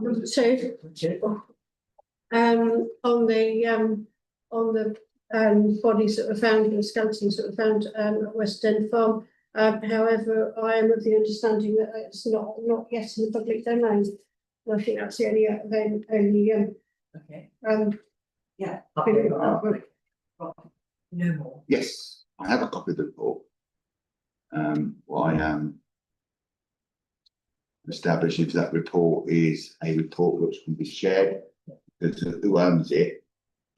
Number two. Um, on the, um, on the, um, bodies that were found, and skeletons that were found, um, at West End Farm. Um, however, I am of the understanding that it's not, not yet in the public domain. And I think that's the only, uh, the only, um, Okay, um, yeah. Okay, well, No more. Yes, I have a copy of the report. Um, why, um. Establish if that report is a report which can be shared, because who owns it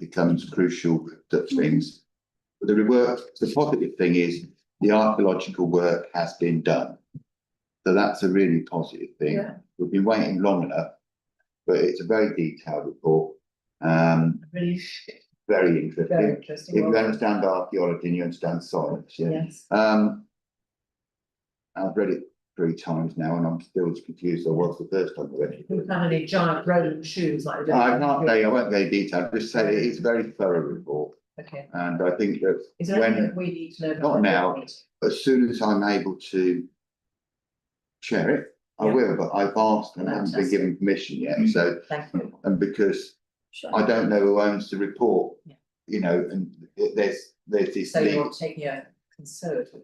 becomes crucial to things. But the work, the positive thing is the archaeological work has been done. So that's a really positive thing. Yeah, We've been waiting long enough, but it's a very detailed report. Um, really very very interesting. If interesting. you Well, understand archaeology and you understand science, yeah. Yes, Um. I've read it three times now and I'm still as confused as I was the first time I read who it. found any giant rolling shoes like. they do? I can't say, I won't go into detail, just say it is a very thorough report Okay, and I think that is there When- anything that we need to know? about Not the now. government? as soon as I'm able to. Share it, I Yeah. will, but I've asked and I haven't been given permission yet, so, Thank you. and because I don't know who owns the report. Yeah. You know, and it- there's, there's this. So legal- you're taking a conservative.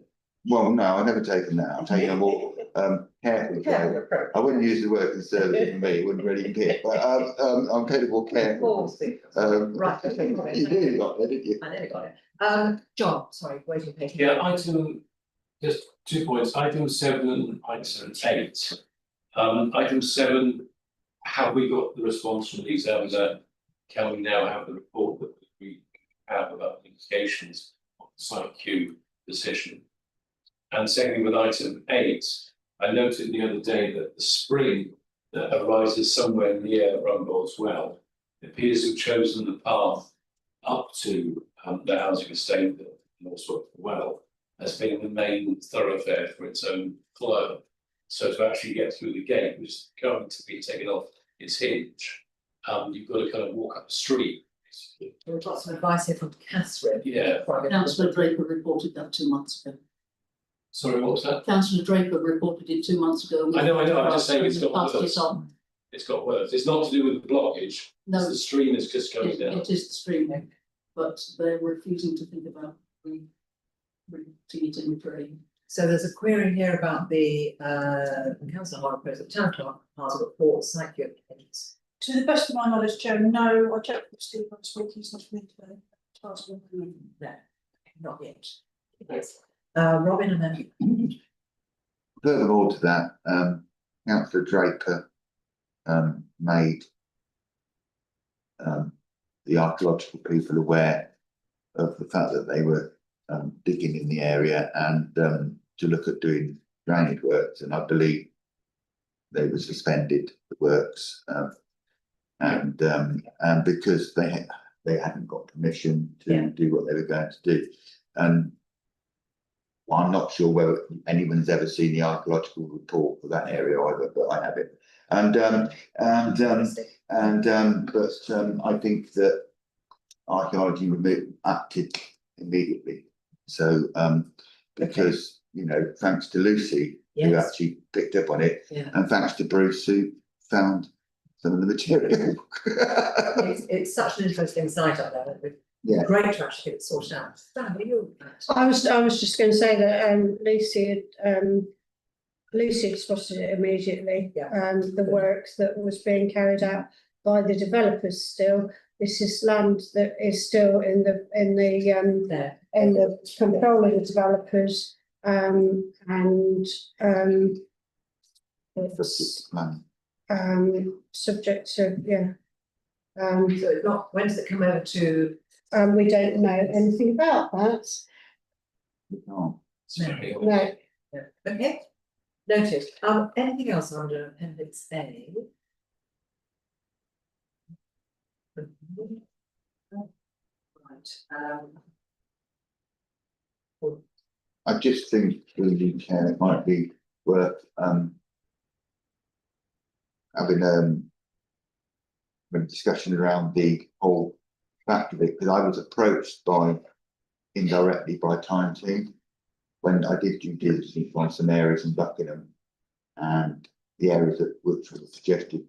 Well, no, I've never taken that, I'm taking a more um careful approach. approach. I wouldn't use the word conservative for me, it wouldn't really appear, but um, um, I'm capable of Of care. course. Um, Right, okay, right. You did, like, didn't you? I nearly got it. Um, John, sorry, waiting patient. Yeah, item, just two points, item seven and item eight. Um, item seven, have we got the response from the examiner? Can we now have the report that we have about the implications of the site Q decision? And secondly, with item eight, I noted the other day that the spring that arises somewhere near Rumbold's Well appears to have chosen the path up to um, the housing estate that Northwood Well as being the main thoroughfare for its own flow. So to actually get through the gate, which is going to be taken off its hinge, um, you've got to kind of walk up the street. basically. There was lots of advice here from Catherine. Yeah, before I go to the- Councillor Draper reported that two months ago. sorry, what was that? Councillor Draper reported it two months ago. I know, I know, I'm just saying it's got Passed it worse. on. It's got worse. It's not to do with the blockage, it's No, the it, stream is just going down. it is the streaming, but they're refusing to think about re, re, it in for a So there's a query here about the uh council hall proposal, town clerk, part of the report, site view applications. To the best of my knowledge, Joe, no, I checked with Steve last week, he's not in today. Task one, no. No, not yet. Yes. Uh, Robin and then Further all to that, um, councillor Draper, um, made. Um, the archaeological people aware of the fact that they were, um, digging in the area and, um, to look at doing drainage works and I believe. They were suspended, the works, um, and, um, and because they, ha- they hadn't got permission Yeah. to do what they were going to do. And well, I'm not sure whether anyone's ever seen the archaeological report for that area either, but I have it. And, um, and, um, and, um, but, um, I think that archaeology remo- acted immediately. So, um, because, you know, thanks to Lucy, who Yes. actually picked up on it, Yeah. and thanks to Bruce, who found some of the material. It's it's such an interesting site up there, that would Yeah. great to actually get it sorted out. Stan, are you? I was, I was just going to say that, um, Lucy, had, um, Lucy had spotted it immediately. Yeah. And the work that was being carried out by the developers still, this is land that is still in the, in the, um, There, in the control of the developers, um, and, um. It's, Man, um, subject to, yeah. Um, so it's not, when does it come over to, and we don't know anything about that, you can't. It's very old. no, no, okay? Noted, um, anything else under appendix A? Right, um. I just think really care, it might be worth um. Having um. A discussion around the whole fact of it, because I was approached by indirectly by Time Team. When I did due diligence on some areas in Buckingham. And the areas that which were suggested